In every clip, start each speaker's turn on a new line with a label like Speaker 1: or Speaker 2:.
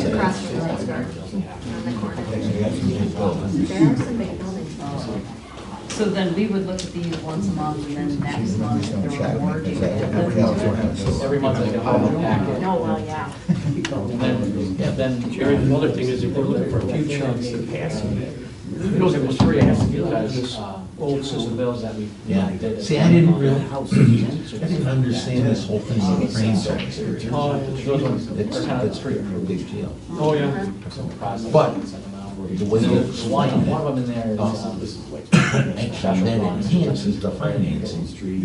Speaker 1: across from Rose Garden, on the corner. There are some big buildings.
Speaker 2: So then we would look at these once a month and then next month, if there were more, do you dip into it?
Speaker 3: Every month I go out and act it.
Speaker 1: No,
Speaker 2: Oh,
Speaker 1: well, yeah.
Speaker 3: And then, yeah, then Jerry, the other thing is if we're looking for a few chunks to pass on it, we don't have much free ass to utilize uh, old system bills that we.
Speaker 4: Yeah, see, I didn't really, I didn't understand this whole thing with brain storage.
Speaker 3: Oh, those ones are
Speaker 4: It's,
Speaker 3: kind of
Speaker 4: that's
Speaker 3: free.
Speaker 4: pretty, pretty big deal.
Speaker 3: Oh, yeah.
Speaker 4: But-
Speaker 3: the
Speaker 4: The way you
Speaker 3: One
Speaker 4: slide
Speaker 3: one of them
Speaker 4: it,
Speaker 3: in there is,
Speaker 4: also,
Speaker 3: um,
Speaker 4: actually, that enhances the financing.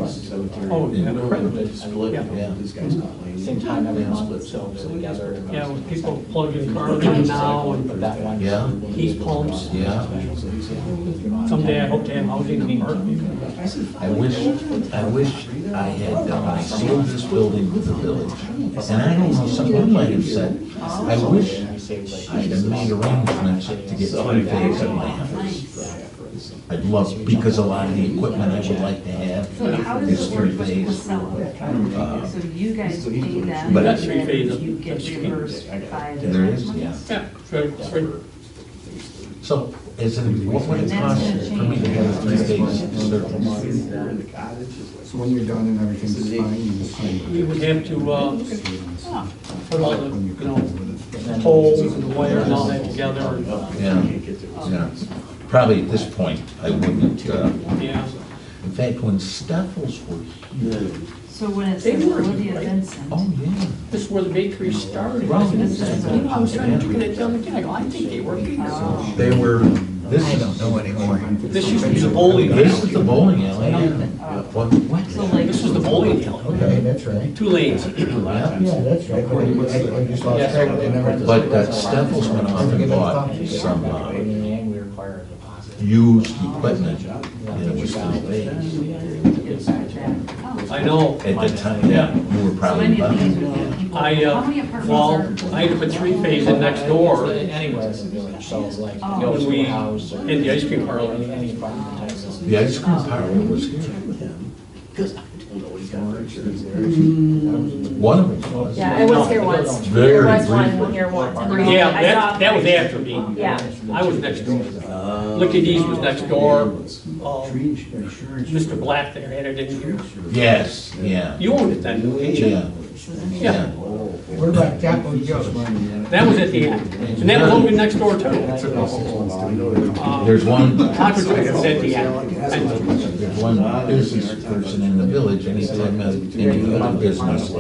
Speaker 3: oh, incredibly, I mean,
Speaker 4: Split, yeah.
Speaker 3: same time every month, so so we gather.
Speaker 5: Yeah, when people plug in cars in now,
Speaker 3: But
Speaker 5: and
Speaker 3: that one.
Speaker 4: Yeah.
Speaker 3: Heat pumps.
Speaker 4: Yeah.
Speaker 5: someday I hope to have housing in the park.
Speaker 4: I wish, I wish I had, done- I sold this building to the village. And I don't know, someone might have said, I wish I had made arrangements to get three phase in my house. I'd love, because a lot of the equipment I would like to
Speaker 2: So how
Speaker 4: have
Speaker 2: does
Speaker 4: is
Speaker 2: it work
Speaker 4: three
Speaker 2: with the
Speaker 4: phase.
Speaker 2: seller? So you guys pay them,
Speaker 4: But-
Speaker 2: and then you get reimbursed by the.
Speaker 4: There is, yeah.
Speaker 5: Yeah, right, right.
Speaker 4: So is it, what would it
Speaker 2: That's
Speaker 4: cost
Speaker 2: gonna
Speaker 4: for me to
Speaker 2: change.
Speaker 4: have three phase circles?
Speaker 6: So when you're done and everything's fine, you just sign.
Speaker 5: We would have to, uh, put all the, you know,
Speaker 3: And
Speaker 5: poles and the wire and all that together, and, uh,
Speaker 4: Yeah, yeah. Probably at this point, I wouldn't, uh,
Speaker 5: yeah.
Speaker 4: in fact, when Steffels were here,
Speaker 2: So when it says Olivia Vincent,
Speaker 4: oh, yeah.
Speaker 5: This is where the bakery started.
Speaker 4: Right.
Speaker 5: This is, you know, I was trying to look at it the other day, I go, I think they were bakers.
Speaker 2: uh,
Speaker 4: They were,
Speaker 6: uh,
Speaker 4: this is. I don't know anymore.
Speaker 5: This used to be the bowling
Speaker 4: This is
Speaker 5: alley.
Speaker 4: the bowling alley. What,
Speaker 2: so
Speaker 4: what?
Speaker 2: like,
Speaker 5: This was the bowling alley,
Speaker 6: Okay, that's right.
Speaker 5: two lanes.
Speaker 4: Yeah.
Speaker 6: Yeah, that's right. But I- I just lost track of the number.
Speaker 4: But uh, Steffels went off and bought some uh,
Speaker 3: in the end, we require a deposit.
Speaker 4: used equipment, and it was three bays.
Speaker 2: it's like that.
Speaker 5: I know.
Speaker 4: At the time, you were
Speaker 2: So
Speaker 4: probably
Speaker 2: many of these
Speaker 4: buying.
Speaker 2: would be people,
Speaker 5: I,
Speaker 2: how many
Speaker 5: uh,
Speaker 2: apartments
Speaker 5: well,
Speaker 2: are?
Speaker 5: I had to put three phase in next door, and
Speaker 3: Anywhere in the village, so it's like,
Speaker 2: Oh.
Speaker 3: go
Speaker 5: we,
Speaker 3: to a house or.
Speaker 5: and the ice cream parlor,
Speaker 3: Any, any apartment type of.
Speaker 4: The ice cream parlor was here.
Speaker 6: Mm.
Speaker 4: One of them was.
Speaker 1: Yeah, I was here once. There
Speaker 4: Very
Speaker 1: was one
Speaker 4: briefly.
Speaker 1: here once. and then
Speaker 5: Yeah,
Speaker 1: I saw-
Speaker 5: that, that was after me.
Speaker 1: Yeah.
Speaker 5: I was next door. Licky D's was next door. Um, Mr. Black there had it in here.
Speaker 4: Yes, yeah,
Speaker 5: You owned it then, didn't you?
Speaker 4: yeah, yeah.
Speaker 6: What about Chapo Joe's?
Speaker 5: That was at the end. And that was open next door too. Um,
Speaker 4: There's one,
Speaker 5: Taco Joe's was at the end.
Speaker 4: there's one business person in the village, anytime any other business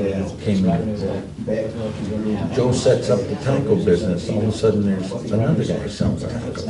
Speaker 4: came in. Joe sets up the taco business, all of a sudden there's another guy selling tacos.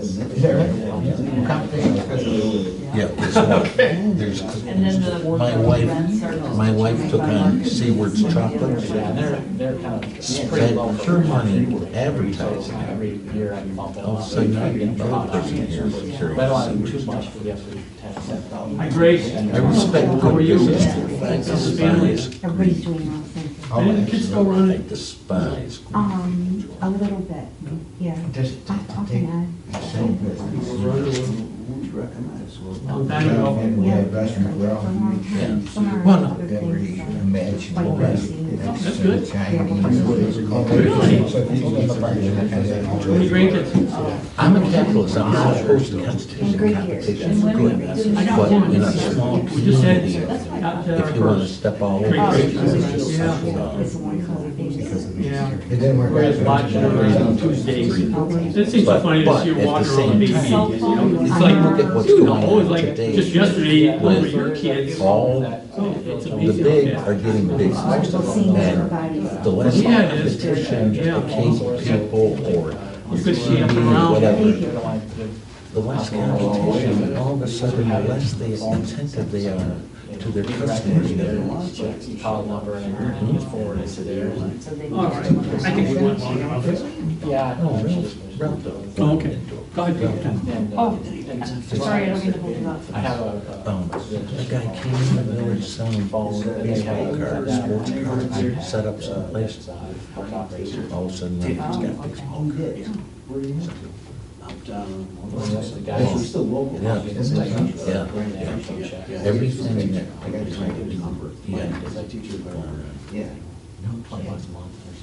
Speaker 6: Is that right? Competition because of-
Speaker 4: Yeah, there's one, there's,
Speaker 2: And then the.
Speaker 4: my wife,
Speaker 2: rents are just-
Speaker 4: my wife took on Seaward's Chocolates,
Speaker 3: Yeah, and they're, they're kind of pretty low.
Speaker 4: spent her money advertising.
Speaker 3: Every year I bump
Speaker 4: All of a
Speaker 3: up.
Speaker 4: sudden, I get a person here for
Speaker 3: But I
Speaker 4: curious.
Speaker 3: don't have too much for the absolute ten cent.
Speaker 5: Hi, Grace.
Speaker 4: I respect
Speaker 5: How are
Speaker 4: good
Speaker 5: you?
Speaker 4: business. I despise,
Speaker 7: Everybody's doing well, thank you.
Speaker 4: I'll actually, I despise.
Speaker 7: Um, a little bit, yeah.
Speaker 6: Does-
Speaker 7: How how can
Speaker 5: Long time ago.
Speaker 7: I?
Speaker 6: And we had restaurant, we're all.
Speaker 4: Well, no.
Speaker 7: Well, other things. um,
Speaker 6: Imaginable restaurant.
Speaker 5: That's good.
Speaker 6: Chinese. So if you open up a bar, you're not gonna have-
Speaker 5: How many grandkids? uh,
Speaker 4: I'm a capitalist, I'm not opposed to
Speaker 7: And
Speaker 4: competition,
Speaker 7: great
Speaker 4: competition
Speaker 7: years.
Speaker 4: is good, but in a small
Speaker 5: We just had,
Speaker 4: community,
Speaker 5: got
Speaker 4: if you wanna step all over.
Speaker 7: Oh,
Speaker 4: it,
Speaker 7: it's-
Speaker 4: it's
Speaker 5: Yeah.
Speaker 4: just-
Speaker 7: It's a one color thing.
Speaker 5: Yeah.
Speaker 6: It didn't work out.
Speaker 5: Whereas watching on Tuesdays. It seems so funny to see her
Speaker 4: But-
Speaker 5: walk
Speaker 4: but at the
Speaker 5: around the
Speaker 4: same
Speaker 5: baby. you
Speaker 4: time,
Speaker 5: know? It's
Speaker 4: if
Speaker 5: like,
Speaker 4: you look at what's
Speaker 5: you
Speaker 4: going
Speaker 5: know, it's
Speaker 4: on
Speaker 5: like,
Speaker 4: today
Speaker 5: just yesterday, over
Speaker 4: with
Speaker 5: your kids.
Speaker 4: All,
Speaker 5: It's
Speaker 4: the
Speaker 5: amazing.
Speaker 4: big are getting big,
Speaker 7: Seeing
Speaker 4: and
Speaker 7: everybody's.
Speaker 4: the less
Speaker 5: Yeah, it is.
Speaker 4: competition,
Speaker 5: Yeah.
Speaker 4: the case people or
Speaker 5: You
Speaker 4: your
Speaker 5: could see them
Speaker 4: community,
Speaker 5: around.
Speaker 4: whatever, the less competition, and all of a sudden, the less they attentive they are to their customers. Mm-hmm.
Speaker 3: Call number and everything is forwarded to theirs.
Speaker 2: So they
Speaker 5: All right, I think we went long enough.
Speaker 3: Yeah.
Speaker 4: No, Ralph, Ralph
Speaker 3: And,
Speaker 5: Oh, Okay, go ahead, take your time.
Speaker 3: uh,
Speaker 2: Oh,
Speaker 3: and-
Speaker 2: Sorry, I don't mean to hold you up.
Speaker 3: I have a.
Speaker 4: Um, a guy came in the village selling balls, baseball cards, sports cards, set up some
Speaker 3: uh,
Speaker 4: place. All of a sudden, he's got big smoke. Yeah, yeah, yeah. Everything that I got to do, he had to,
Speaker 3: I teach you about.
Speaker 4: uh,
Speaker 3: Twenty bucks a month.